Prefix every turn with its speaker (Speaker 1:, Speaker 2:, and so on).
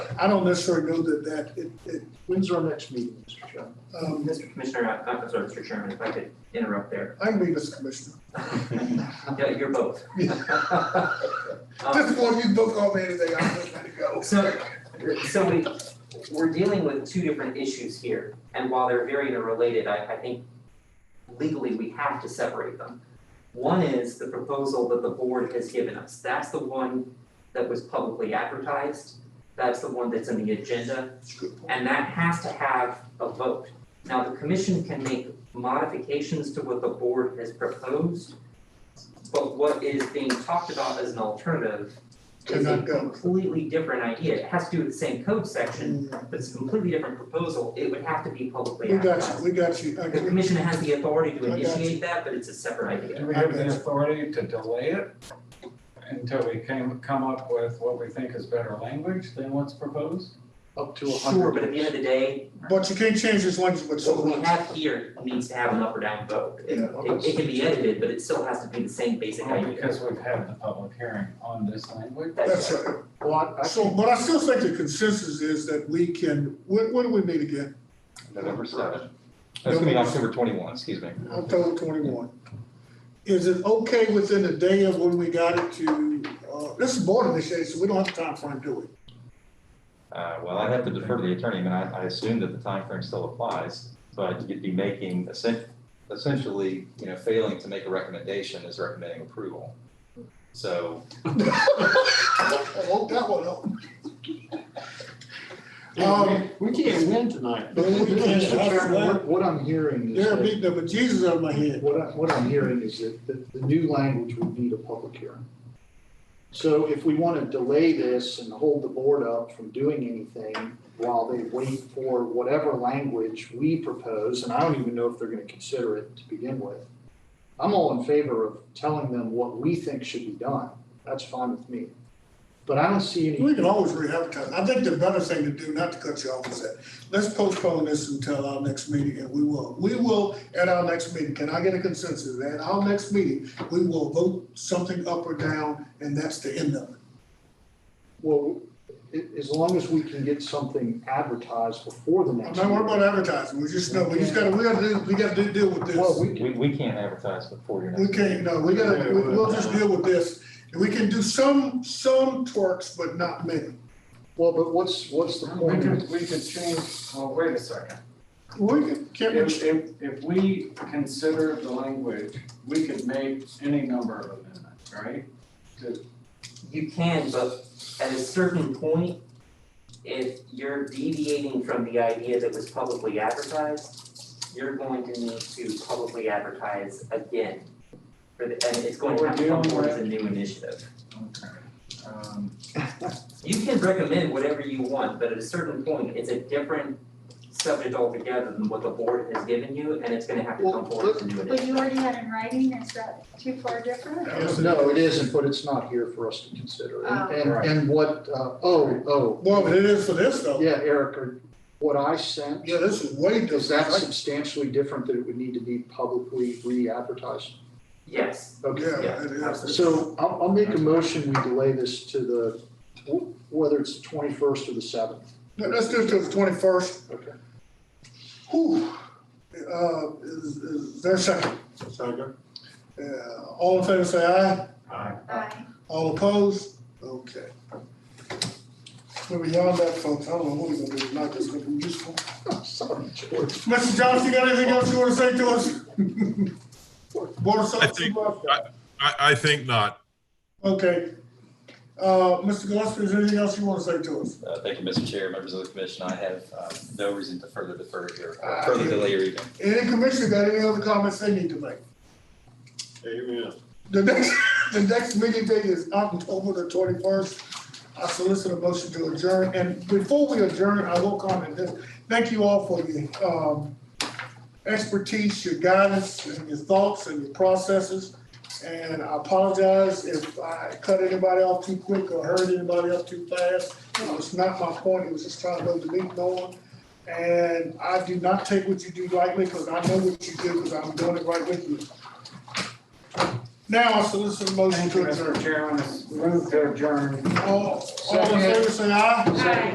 Speaker 1: I don't necessarily know that that, it, it, when's our next meeting, Mr. Chairman? Um,
Speaker 2: Mr. Commissioner, uh, I'm sorry, Mr. Chairman, if I could interrupt there.
Speaker 1: I can be this commissioner.
Speaker 2: Yeah, you're both. Um,
Speaker 1: Just one, you book all me anything, I'm just ready to go.
Speaker 2: So, so we, we're dealing with two different issues here, and while they're very interrelated, I, I think legally we have to separate them. One is the proposal that the board has given us, that's the one that was publicly advertised, that's the one that's in the agenda, and that has to have a vote. Now, the commission can make modifications to what the board has proposed, but what is being talked about as an alternative is a
Speaker 1: Cannot go.
Speaker 2: completely different idea, it has to do with the same code section, but it's a completely different proposal, it would have to be publicly
Speaker 1: We got
Speaker 2: advertised.
Speaker 1: you, we got you. I
Speaker 2: The
Speaker 1: can-
Speaker 2: commission has the authority to
Speaker 1: I got you.
Speaker 2: initiate that, but it's a separate idea.
Speaker 3: Do we have the authority to delay it until we came, come up with what we think is better language than what's proposed?
Speaker 4: Up to a hundred.
Speaker 2: Sure, but at the end of the day,
Speaker 1: But you can't change this language, but so
Speaker 2: what we have here needs to have an up or down vote. It,
Speaker 1: Yeah,
Speaker 2: it- it can be edited, but it still has to be the same basic
Speaker 3: Only
Speaker 2: idea.
Speaker 3: Oh, because we've had the public hearing on this language.
Speaker 1: That's right.
Speaker 4: Well, I- I
Speaker 1: So,
Speaker 4: think
Speaker 1: but I still think the consensus is that we can, when, when do we meet again?
Speaker 5: November seventh. That's gonna be October twenty-one, excuse me.
Speaker 1: October twenty-one. Is it okay within the day of when we got it to, uh, this is board initiated, so we don't have the time frame, do we?
Speaker 5: Uh, well, I'd have to defer to the attorney, I mean, I, I assume that the time frame still applies, but you'd be making essen- essentially, you know, failing to make a recommendation is recommending approval. So,
Speaker 1: I hope that one up. Um,
Speaker 4: Oh, We we can't win tonight.
Speaker 1: No, we can't.
Speaker 4: Mr. Chairman, what- What I'm hearing is,
Speaker 1: They're
Speaker 4: that-
Speaker 1: beating the bejesus out of my head.
Speaker 4: what I, what I'm hearing is that the, the new language would need a public hearing. So if we want to delay this and hold the board up from doing anything while they wait for whatever language we propose, and I don't even know if they're going to consider it to begin with. I'm all in favor of telling them what we think should be done. That's fine with me. But I don't see any.
Speaker 1: We can always re-advertise. I think the better thing to do, not to cut you off, is that, let's postpone this until our next meeting, and we will, we will, at our next meeting, can I get a consensus? At our next meeting, we will vote something up or down, and that's the end of it.
Speaker 4: Well, a- as long as we can get something advertised before the
Speaker 1: I'm
Speaker 4: next.
Speaker 1: not worried
Speaker 4: meeting.
Speaker 1: about advertising, we just know, we just gotta, we gotta do, we gotta do, deal with
Speaker 4: Well,
Speaker 1: this.
Speaker 4: we
Speaker 5: we,
Speaker 4: can,
Speaker 5: we can't advertise before your next.
Speaker 1: We can't, no, we gotta, we- we'll just deal with this. And we can do some, some twerks, but not many.
Speaker 4: well, but what's, what's the
Speaker 3: We
Speaker 4: point?
Speaker 3: could,
Speaker 4: of-
Speaker 3: we could change, well, wait a second.
Speaker 1: We can, can't we?
Speaker 3: If, if, if we consider the language, we could make any number of amendments, right?
Speaker 2: You can, but at a certain point, if you're deviating from the idea that was publicly advertised, you're going to need to publicly advertise again. For the, and it's going to have to come forward as a new initiative.
Speaker 3: Okay.
Speaker 5: Uh,
Speaker 3: Um,
Speaker 2: You can recommend whatever you want, but at a certain point, it's a different subject altogether than what the board has given you, and it's gonna have to come forward as a new initiative.
Speaker 6: But you already had in writing, is that too far different?
Speaker 4: No, it isn't, but it's not here for us to consider. And-
Speaker 6: Oh.
Speaker 4: And,
Speaker 3: Right.
Speaker 4: and what, uh, oh, oh,
Speaker 1: Well, but it is for this though.
Speaker 4: yeah, Eric, or what I sent,
Speaker 1: Yeah, this is way different.
Speaker 4: is that substantially different that it would need to be publicly re-advertised?
Speaker 2: Yes,
Speaker 4: Okay.
Speaker 1: Yeah, it is.
Speaker 4: So I'll, I'll make a motion, we delay this to the, wh- whether it's the twenty-first or the seventh.
Speaker 1: No, Let's do it till the twenty-first.
Speaker 4: Okay.
Speaker 1: Whew. Uh, is, is there a second? Second. Yeah, all in favor say aye,
Speaker 3: I-
Speaker 6: Aye.
Speaker 1: all opposed, okay. We're beyond that, folks, I don't know what we're gonna do tonight, that's gonna be useful.
Speaker 4: Sorry, George.
Speaker 1: Mr. Johnson, you got anything else you wanna say to us? Board of
Speaker 7: I
Speaker 1: Selectmen,
Speaker 7: think-
Speaker 1: Supervisor?
Speaker 7: I, I think not.
Speaker 1: okay. Uh, Mr. Gillespie, is there anything else you wanna say to us?
Speaker 5: Uh, thank you, Mr. Chair, members of the commission, I have, uh, no reason to further defer here,
Speaker 1: Ah,
Speaker 5: further
Speaker 1: yeah.
Speaker 5: delay or even.
Speaker 1: Any commissioner got any other comments they need to make?
Speaker 8: Amen.
Speaker 1: The next, the next meeting date is October the twenty-first. I solicit a motion to adjourn, and before we adjourn, I will comment this. Thank you all for your, um, expertise, your guidance, and your thoughts and your processes. And I apologize if I cut anybody off too quick or hurt anybody up too fast. It was not my point, it was just trying to go the meeting on. And I do not take what you do lightly, because I know what you do, because I'm doing it right with you. Now I solicit a motion
Speaker 3: Thank you,
Speaker 1: to adjourn.
Speaker 3: Mr. Chairman, It's moved to adjourn.
Speaker 1: All, all in favor, say aye.
Speaker 6: Aye.